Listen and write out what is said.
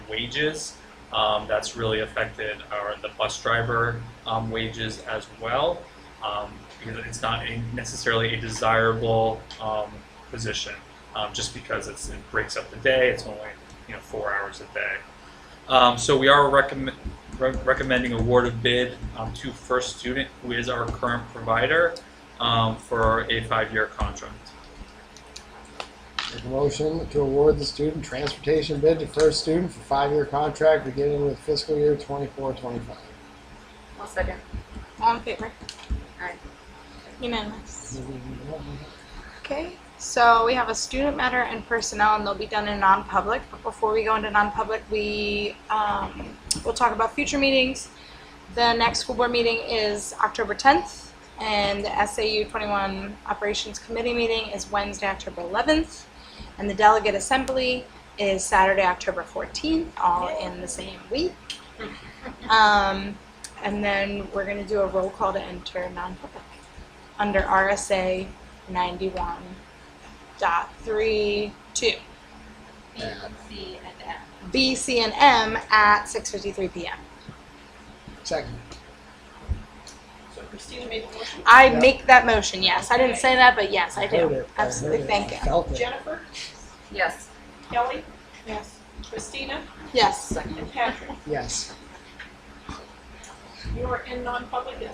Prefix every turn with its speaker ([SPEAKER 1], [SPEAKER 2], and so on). [SPEAKER 1] wages. Um, that's really affected our the bus driver um, wages as well, um, because it's not a, necessarily a desirable um, position. Um, just because it's, it breaks up the day, it's only you know four hours a day. Um, so we are recommend, re- recommending award of bid um, to First Student, who is our current provider, um, for a five-year contract.
[SPEAKER 2] Make a motion to award the student transportation bid to first student for five-year contract beginning with fiscal year twenty-four, twenty-five.
[SPEAKER 3] I'll second.
[SPEAKER 4] All in favor?
[SPEAKER 3] Aye.
[SPEAKER 4] Unanimous. Okay, so we have a student matter and personnel, and they'll be done in non-public. But before we go into non-public, we, um, we'll talk about future meetings. The next school board meeting is October tenth, and the SAU twenty-one Operations Committee meeting is Wednesday, October eleventh. And the delegate assembly is Saturday, October fourteenth, all in the same week. Um, and then we're gonna do a roll call to enter non-public under RSA 91 dot 3 2
[SPEAKER 3] B and C and M.
[SPEAKER 4] b c and m at 6.53 p.m
[SPEAKER 2] Second.
[SPEAKER 5] So Christina made the motion.
[SPEAKER 4] i
[SPEAKER 2] Yeah.
[SPEAKER 4] make that motion yes i didn't say that but yes i
[SPEAKER 2] Heard
[SPEAKER 4] do
[SPEAKER 2] it. I
[SPEAKER 4] absolutely
[SPEAKER 2] heard it.
[SPEAKER 4] thank
[SPEAKER 2] I
[SPEAKER 4] you
[SPEAKER 2] Felt it.
[SPEAKER 5] Jennifer,
[SPEAKER 3] Yes.
[SPEAKER 5] Kelly,
[SPEAKER 4] yes
[SPEAKER 5] Christina,
[SPEAKER 4] yes
[SPEAKER 5] and Patrick.
[SPEAKER 2] Yes.
[SPEAKER 5] You are in non-public at